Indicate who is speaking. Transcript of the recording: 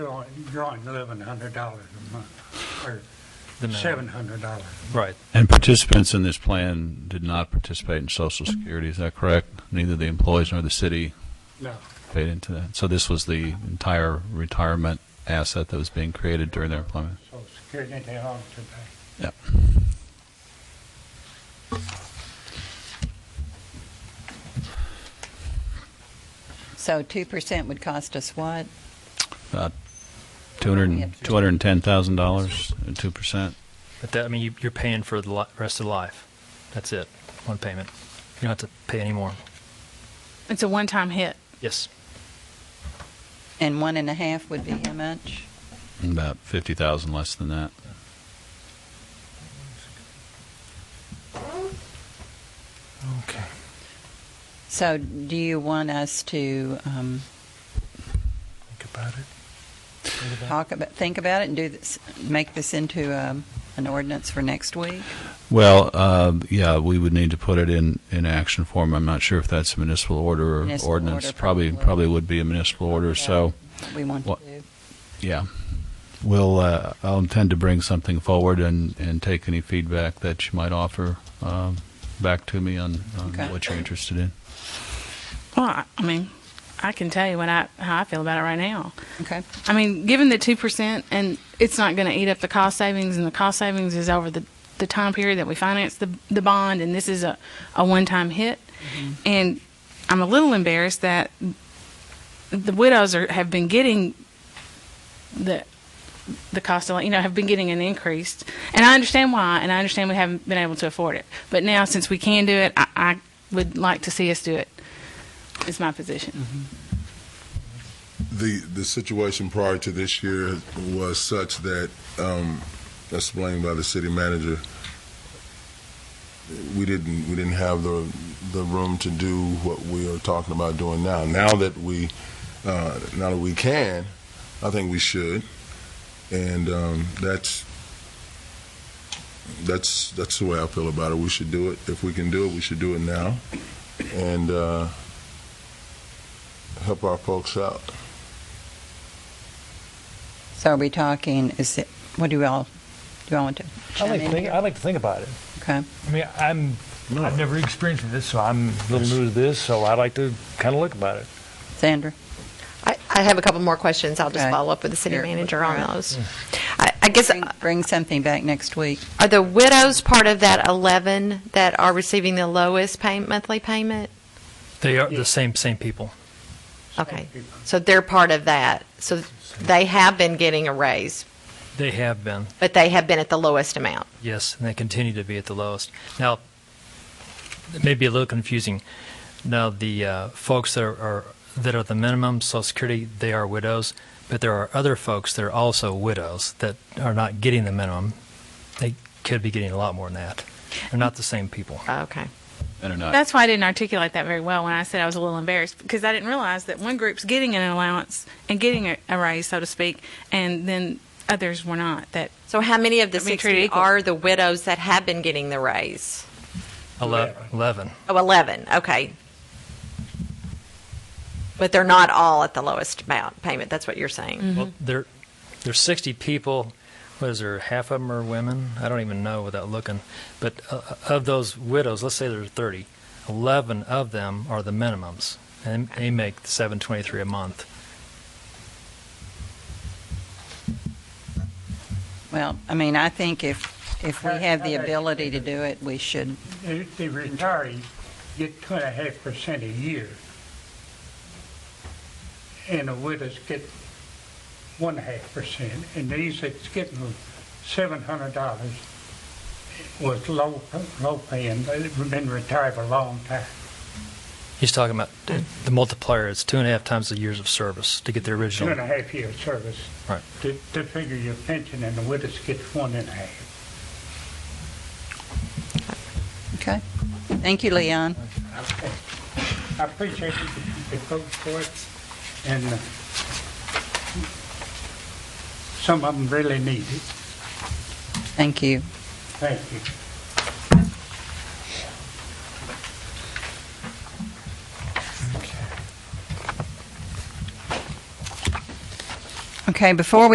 Speaker 1: You're drawing eleven hundred dollars a month, or seven hundred dollars.
Speaker 2: Right.
Speaker 3: And participants in this plan did not participate in Social Security, is that correct? Neither the employees nor the city
Speaker 1: No,
Speaker 3: paid into that? So this was the entire retirement asset that was being created during their employment?
Speaker 1: Social Security, they all today.
Speaker 3: Yep.
Speaker 4: So 2% would cost us what?
Speaker 3: About $200 $210,000, 2%?
Speaker 2: But that, I mean, you, you're paying for the li- rest of the life. That's it. One payment. You don't have to pay anymore.
Speaker 5: It's a one-time hit.
Speaker 2: Yes.
Speaker 4: And one and a half would be how much?
Speaker 3: About 50,000 less than that.
Speaker 2: Okay.
Speaker 4: So do you want us to um,
Speaker 2: Think about it.
Speaker 4: talk about, think about it and do this, make this into um, an ordinance for next week?
Speaker 3: Well, uh, yeah, we would need to put it in, in action form. I'm not sure if that's a municipal order or
Speaker 4: Municipal
Speaker 3: ordinance.
Speaker 4: order,
Speaker 3: Probably,
Speaker 4: probably.
Speaker 3: probably would be a municipal order, so.
Speaker 4: What We want to
Speaker 3: What-
Speaker 4: do.
Speaker 3: Yeah. We'll, uh, I'll intend to bring something forward and, and take any feedback that you might offer um, back to me on, on
Speaker 4: Okay.
Speaker 3: what you're interested in.
Speaker 5: Well, I- I mean, I can tell you what I how I feel about it right now.
Speaker 4: Okay.
Speaker 5: I mean, given the two percent, and it's not going to eat up the cost savings, and the cost savings is over the the time period that we finance the the bond, and this is a a one time hit, and I'm a little embarrassed that the widows are have been getting the the cost of li- you know have been getting an increase, and I understand why, and I understand we haven't been able to afford it, but now since we can do it, I, I would like to see us do it. Is my position.
Speaker 6: the the situation prior to this year was such that um, explained by the city manager. We didn't we didn't have the the room to do what we are talking about doing now. Now that we uh, now that we can, I think we should, and um, that's. That's that's the way I feel about it. We should do it if we can do it. We should do it now, and uh, help our folks out.
Speaker 4: So are we talking, is it, what do you all, do you all want to
Speaker 7: I
Speaker 4: chime
Speaker 7: like, to
Speaker 4: in
Speaker 7: think,
Speaker 4: here?
Speaker 7: I like to think about it.
Speaker 4: Okay.
Speaker 7: I mean, I'm, I've never experienced this, so I'm a little new to this, so I like to kind of look about it.
Speaker 4: Sandra?
Speaker 8: I, I have a couple more questions. I'll just
Speaker 4: Okay.
Speaker 8: follow up with the city
Speaker 4: Here,
Speaker 8: manager
Speaker 4: all
Speaker 8: on
Speaker 4: right. Hmm.
Speaker 8: those. I, I guess,
Speaker 4: Bring- Bring something back next week.
Speaker 8: are the widows part of that 11 that are receiving the lowest pay, monthly payment?
Speaker 2: They are the same, same people.
Speaker 8: Okay,
Speaker 1: people.
Speaker 8: so they're part of that. So they have been getting a raise,
Speaker 2: They have been.
Speaker 8: but they have been at the lowest amount.
Speaker 2: Yes, and they continue to be at the lowest. Now, it may be a little confusing. Now, the uh, folks that are, are that are the minimum Social Security, they are widows, but there are other folks that are also widows that are not getting the minimum. They could be getting a lot more than that. They're not the same people.
Speaker 8: Okay.
Speaker 3: And or not.
Speaker 5: That's why I didn't articulate that very well when I said I was a little embarrassed because I didn't realize that one group's getting an allowance and getting a, a raise, so to speak, and then others were not. That
Speaker 8: So how many of the
Speaker 5: I mean, treated
Speaker 8: 60
Speaker 5: equal.
Speaker 8: are the widows that have been getting the raise?
Speaker 2: Ele- Eleven.
Speaker 8: Oh, 11, okay. But they're not all at the lowest amount payment, that's what you're
Speaker 4: Mm-hmm.
Speaker 8: saying?
Speaker 2: Well, there, there's 60 people. What is there? Half of them are women. I don't even know without looking. But uh, of those widows, let's say there's 30. 11 of them are the minimums, and they make 723 a month.
Speaker 4: Well, I mean, I think if, if we
Speaker 1: How-
Speaker 4: have the
Speaker 1: how about-
Speaker 4: ability to do it, we should
Speaker 1: The the retirees get two and a half percent a year. And the widows get one half percent, and these that's getting seven hundred dollars was low, low paying, they've been retired a long time.
Speaker 2: He's talking about the multiplier is two and a half times the years of service to get the
Speaker 1: two and a
Speaker 2: original.
Speaker 1: half year service.
Speaker 2: Right.
Speaker 1: To, to figure your pension and the widows gets one and a half.
Speaker 4: Okay. Thank you, Leon.
Speaker 1: I appreciate the folks for it and uh, some of them really need it.
Speaker 4: Thank you.
Speaker 1: Thank you.
Speaker 4: Okay, before we